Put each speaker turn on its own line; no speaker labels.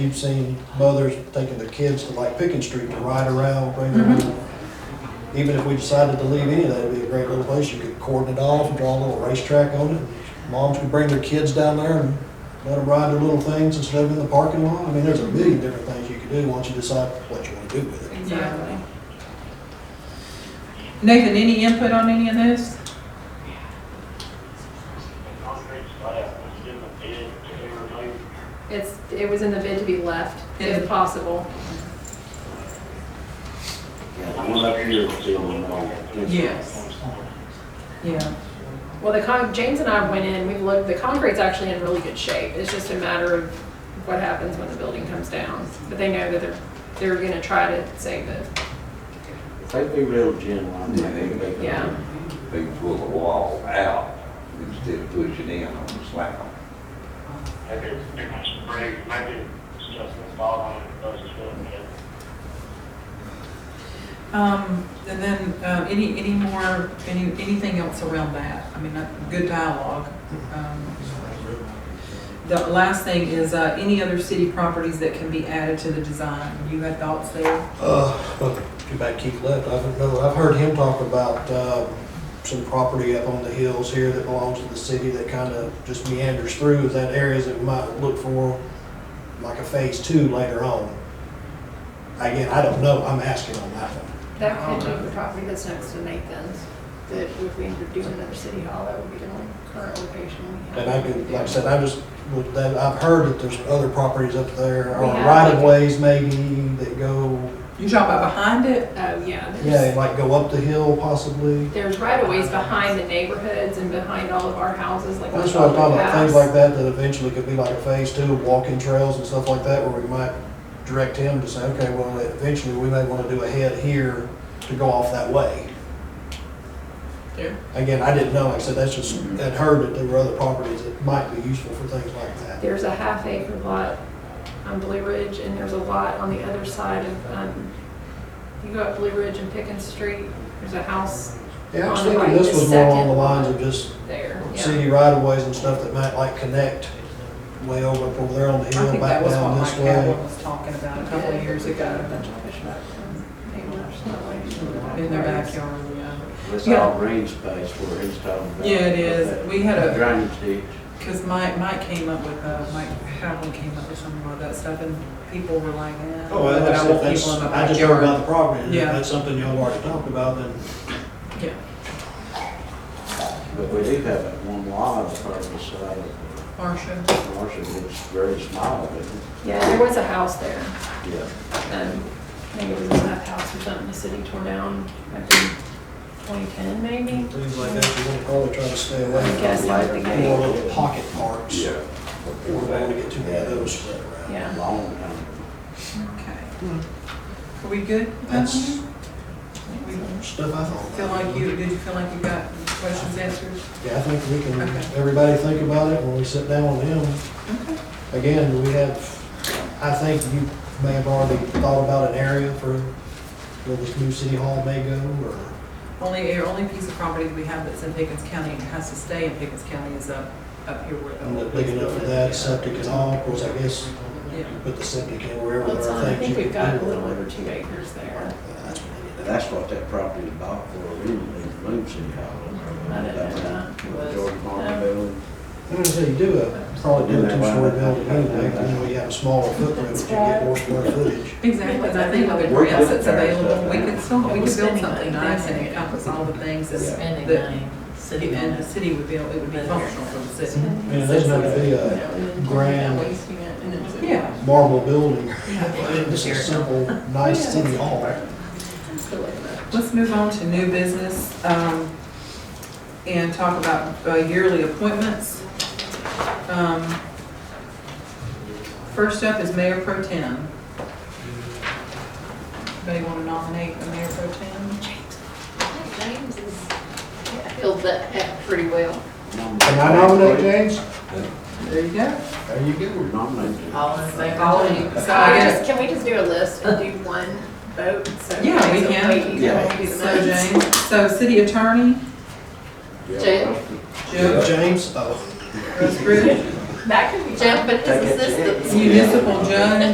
You've seen mothers taking their kids to like Pickens Street to ride around, bring them. Even if we decided to leave any of that, it'd be a great little place. You could cordon it off, draw a little racetrack on it. Moms could bring their kids down there and let them ride their little things instead of in the parking lot. I mean, there's a million different things you could do once you decide what you want to do with it.
Exactly. Nathan, any input on any of this?
It's, it was in the bid to be left, if possible.
One up here is still in the.
Yes. Yeah.
Well, the con, James and I went in, we've looked, the concrete's actually in really good shape. It's just a matter of what happens when the building comes down. But they know that they're, they're gonna try to save it.
If they be real genuine,
Yeah, they, they
Yeah.
can, they can pull the wall out instead of pushing in on the slab.
Maybe it's break, maybe it's just the bottom, it doesn't feel good.
Um, and then, uh, any, any more, any, anything else around that? I mean, uh, good dialogue. Um, The last thing is, uh, any other city properties that can be added to the design? You had thoughts there?
Uh, well, too bad Keith left. I don't know. I've heard him talk about, uh, some property up on the hills here that belongs to the city that kind of just meanders through that areas that we might look for like a phase two later on. Again, I don't know. I'm asking on that one.
That could
Um,
be the property that's next to Nathan's, that if we ended up doing another city hall, that would be the only current location we have.
And I could, like I said, I just, with that, I've heard that there's other properties up there or
We have,
right of
like-
ways maybe that go,
You talking about behind it?
Oh, yeah. there's-
yeah, like go up the hill possibly.
There's right of ways behind the neighborhoods and behind all of our houses, like.
That's
on
what I'm talking
the
about, things
paths.
like that that eventually could be like a phase two, of walking trails and stuff like that, where we might direct him to say, okay, well, eventually we may wanna do a head here to go off that way.
Yeah.
Again, I didn't know, like I said, that's just, I'd heard that there were other properties that might be useful for things like that.
There's a half acre lot on Blue Ridge and there's a lot on the other side of, um, you go up Blue Ridge and Pickens Street, there's a house
Yeah, I was
On the
thinking
right,
this
the
was more along the
second
lines
one.
of just
there. yeah.
city right of ways and stuff that might like connect way over up over there on the
I
hill,
think
back
that was what
down
Mike
this way.
Calvin was talking about a couple of years
Got a
ago,
bunch of pushback from neighbors that way.
in their backyard, yeah.
It's
Yeah.
all green space where he's talking about.
Yeah, it is. We had a-
Drainage ditch.
Because Mike, Mike came up with, uh, Mike Howland came up with some of that stuff, and people were like, eh.
Oh,
but I want people in my
I just heard
backyard."
about the property, and if
Yeah.
that's something y'all already talked about, then
Yeah.
But we do have that one lot of purpose, uh,
Marsha,
Marcia, it's very small, but it-
Yeah, there was a house there.
yeah.
Um, I think it was in that house or something the city tore down, I think, 2010 maybe?
Things like that, you want to probably try to stay away
I guess
from
that would be
more
great.
little pocket parks. We don't want to get too many of those spread around.
Yeah.
Long time.
okay.
Hmm.
Are we good? with that
That's
Mm-hmm.
one? We
stuff I thought.
Feel like you, did you feel like you got questions answered?
Yeah, I think we can,
Okay.
everybody think about it when we sit down with them.
Okay.
Again, we have, I think you may have already thought about an area for where this new city hall may go, or,
Only, our only piece of property that we have that's in Pickens County and has to stay in Pickens County is up, up here where the.
and
old
that big enough for that, septic and all, of course, I guess,
Yeah.
put the septic in wherever
Well, it's
there
on-
are
I
things you
think
can do.
we've got a little over two acres there.
That's what we need to do.
That's what that property is bought for, originally, the Bloom City Hall.
I didn't know that was-
George
no.
Martin building.
I'm gonna say you do a, probably do a two-story building anyway, you know, you have a smaller footprint, but you get more square footage.
Exactly, and I think with the
We're
grants
good
that's
there,
available,
so-
we could still, we
We're
could build
spending
something
money.
nice and encompass all the things that,
spending
that-
money, city
and the
minutes.
city would be, able- it would be functional for the city.
And it doesn't have to be a grand-
Wasting it and it's-
Yeah.
marble building,
Yeah.
just a simple, nice city hall.
Let's move on to new business um, and talk about uh, yearly appointments. Um, First up is Mayor Pro Tem. Anybody want to nominate a Mayor Pro Tem?
James is, filled that hat pretty well.
Can I nominate James?
There you go.
There you go.
Nominated.
All in favor?
All in.
So I guess, can we just do a list and do one vote? So
Yeah, we
everybody's
can.
waiting, you know,
Yeah.
do the
So
minutes?
Jane, so City Attorney,
Jim?
Joe
James, oh.
Rosebridge,
That could be.
Jeff, but his
Take it, Jeff.
assistant.
Municipal Judge,